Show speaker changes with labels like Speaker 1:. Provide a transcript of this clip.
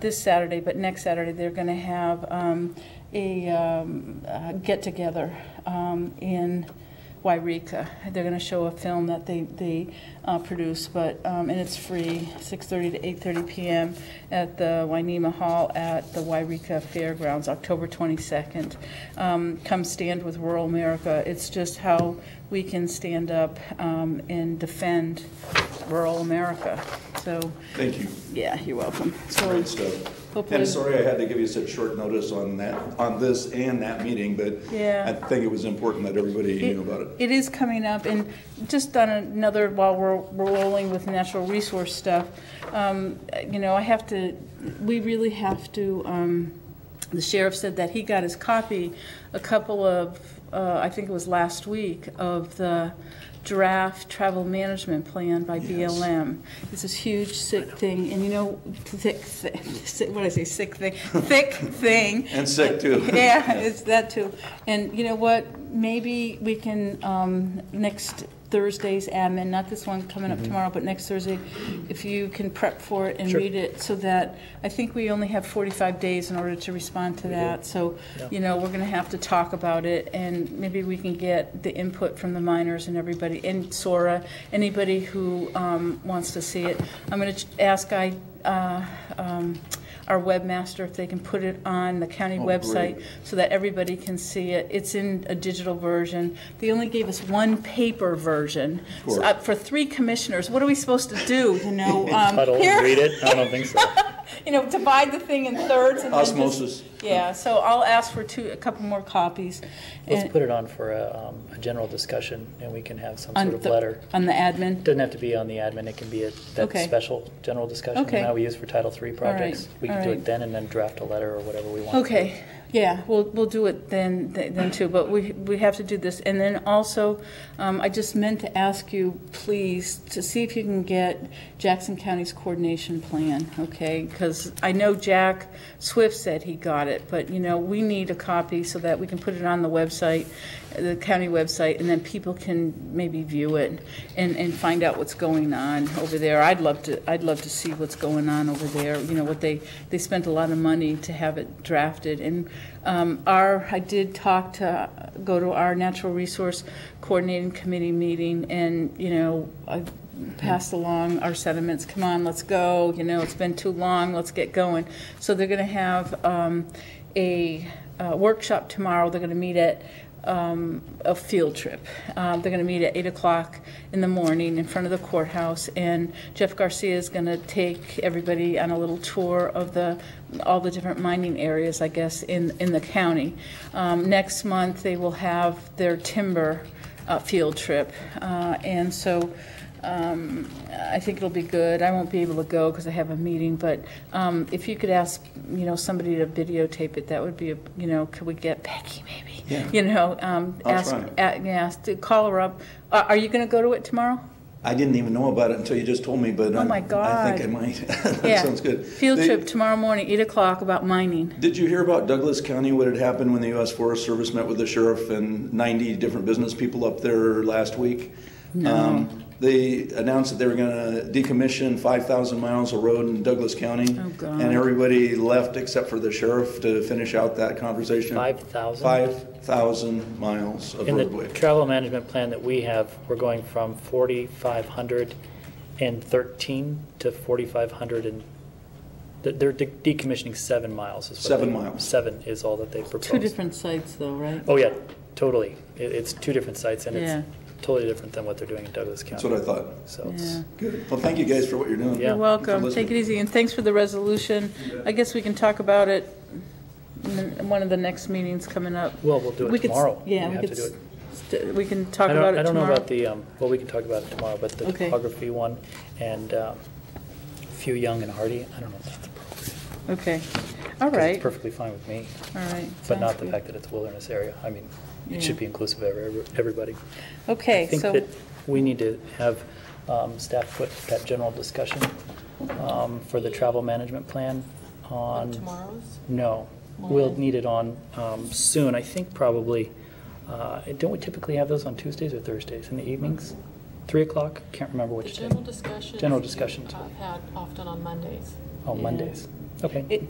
Speaker 1: this Saturday, but next Saturday, they're going to have um, a um, uh, get-together um, in Wairika. They're going to show a film that they, they uh, produce, but, um, and it's free, 6:30 to 8:30 PM at the Wainema Hall at the Wairika Fairgrounds, October 22nd. Um, Come stand with rural America. It's just how we can stand up um, and defend rural America. So,
Speaker 2: Thank you.
Speaker 1: yeah, you're welcome. So
Speaker 2: Great stuff.
Speaker 1: hopefully-
Speaker 2: And sorry I had to give you such short notice on that, on this and that meeting, but
Speaker 1: Yeah.
Speaker 2: I think it was important that everybody knew about it.
Speaker 1: It is coming up, and just on another, while we're we're rolling with natural resource stuff, um, you know, I have to, we really have to, um, the sheriff said that he got his copy a couple of, uh, I think it was last week, of the draft travel management plan by BLM. It's this huge sick thing, and you know, thick, thick, what did I say, sick thing, thick thing.
Speaker 2: And sick, too.
Speaker 1: Yeah, it's that too. And you know what? Maybe we can, um, next Thursday's admin, not this one coming up tomorrow, but next Thursday, if you can prep for it and read it so that, I think we only have 45 days in order to respond to that. So, you know, we're going to have to talk about it and maybe we can get the input from the miners and everybody, and Sora, anybody who um, wants to see it. I'm going to ask I, uh, um, our webmaster if they can put it on the county
Speaker 2: great.
Speaker 1: website so that everybody can see it. It's in a digital version. They only gave us one paper version
Speaker 2: course.
Speaker 1: Uh, for three commissioners. What are we supposed to do, you know? Um,
Speaker 3: Huddle
Speaker 1: here-
Speaker 3: and read it? I don't think so.
Speaker 1: You know, divide the thing in thirds and then just-
Speaker 2: Osmosis.
Speaker 1: Yeah, so I'll ask for two, a couple more copies.
Speaker 3: Let's
Speaker 1: and-
Speaker 3: put it on for a, um, a general discussion, and we can have some
Speaker 1: on
Speaker 3: sort of
Speaker 1: the-
Speaker 3: letter.
Speaker 1: On the admin?
Speaker 3: Doesn't have to be on the admin, it can be at that
Speaker 1: Okay.
Speaker 3: special general discussion
Speaker 1: Okay.
Speaker 3: that we use for Title III projects. We
Speaker 1: all
Speaker 3: can do
Speaker 1: right.
Speaker 3: it then and then draft a letter or whatever we want. to do.
Speaker 1: Okay, yeah, we'll, we'll do it then, then too, but we, we have to do this. And then also, um, I just meant to ask you, please, to see if you can get Jackson County's coordination plan, okay? Because I know Jack Swift said he got it, but, you know, we need a copy so that we can put it on the website, the county website, and then people can maybe view it and, and find out what's going on over there. I'd love to, I'd love to see what's going on over there, you know, what they, they spent a lot of money to have it drafted. And um, our, I did talk to, go to our Natural Resource Coordinating Committee meeting, and, you know, I passed along our sentiments, come on, let's go, you know, it's been too long, let's get going. So they're going to have um, a uh, workshop tomorrow, they're going to meet at um, a field trip. Uh, They're going to meet at 8 o'clock in the morning in front of the courthouse, and Jeff Garcia is going to take everybody on a little tour of the, all the different mining areas, I guess, in, in the county. Um, Next month, they will have their timber uh, field trip, Uh, and so um, I think it'll be good. I won't be able to go because I have a meeting, but um, if you could ask, you know, somebody to videotape it, that would be, a you know, could we get Becky maybe?
Speaker 2: Yeah.
Speaker 1: You know, um,
Speaker 2: I'll
Speaker 1: ask,
Speaker 2: try.
Speaker 1: a- yeah, ask to call her up. Uh, Are you going to go to it tomorrow?
Speaker 2: I didn't even know about it until you just told me, but I'm-
Speaker 1: Oh my
Speaker 2: I think I
Speaker 1: God.
Speaker 2: might. That
Speaker 1: Yeah.
Speaker 2: sounds good.
Speaker 1: Field
Speaker 2: They-
Speaker 1: trip tomorrow morning, 8 o'clock, about mining.
Speaker 2: Did you hear about Douglas County, what had happened when the U.S. Forest Service met with the sheriff and 90 different business people up there last week? No. They announced that they were going to decommission 5,000 miles of road in Douglas County.
Speaker 1: Oh, God.
Speaker 2: And everybody left except for the sheriff to finish out that conversation.
Speaker 3: 5,000?
Speaker 2: 5,000 miles of
Speaker 3: In
Speaker 2: roadway.
Speaker 3: the travel management plan that we have, we're going from 4,513 to 4,500 and, they're- they're de- decommissioning seven miles. is what
Speaker 2: Seven
Speaker 3: they-
Speaker 2: miles.
Speaker 3: Seven is all that they proposed.
Speaker 1: Two different sites though, right?
Speaker 3: Oh, yeah, totally. It, it's two different sites, and
Speaker 1: Yeah.
Speaker 3: it's totally different than what they're doing in Douglas County.
Speaker 2: That's what I thought.
Speaker 3: So it's-
Speaker 1: Yeah.
Speaker 2: Good. Well, thank you guys for what you're doing.
Speaker 3: Yeah.
Speaker 1: You're welcome.
Speaker 2: Listening.
Speaker 1: Take it easy, and thanks for the resolution. I guess we can talk about it in one of the next meetings coming up.
Speaker 3: Well, we'll do it
Speaker 1: We could s-
Speaker 3: tomorrow.
Speaker 1: Yeah,
Speaker 3: We
Speaker 1: we
Speaker 3: have
Speaker 1: could,
Speaker 3: to do
Speaker 1: s-
Speaker 3: it.
Speaker 1: st- we can
Speaker 3: I
Speaker 1: talk
Speaker 3: don't,
Speaker 1: about it
Speaker 3: I don't know
Speaker 1: tomorrow.
Speaker 3: about the, um, well, we can talk about it tomorrow, but the
Speaker 1: Okay.
Speaker 3: topography one and um, few young and hardy, I don't know if that's appropriate. 'cause
Speaker 1: Okay, all
Speaker 3: It's
Speaker 1: right, all
Speaker 3: perfectly fine with me,
Speaker 1: right.
Speaker 3: but not
Speaker 1: sounds
Speaker 3: the
Speaker 1: good.
Speaker 3: fact that it's a wilderness area. I mean,
Speaker 1: Yeah.
Speaker 3: it should be inclusive of every- everybody. I
Speaker 1: Okay,
Speaker 3: think
Speaker 1: so,
Speaker 3: that we need to have um, staff put that general discussion um, for the travel management plan on.
Speaker 4: Tomorrow's?
Speaker 3: No, we'll need it on um, soon, I think probably, uh, don't we typically have those on Tuesdays or Thursdays in the evenings? 3 o'clock, can't remember
Speaker 4: The
Speaker 3: which day,
Speaker 4: general discussions.
Speaker 3: General discussions.
Speaker 4: I've had often on Mondays.
Speaker 3: on Oh, Mondays.
Speaker 5: Okay.
Speaker 3: It-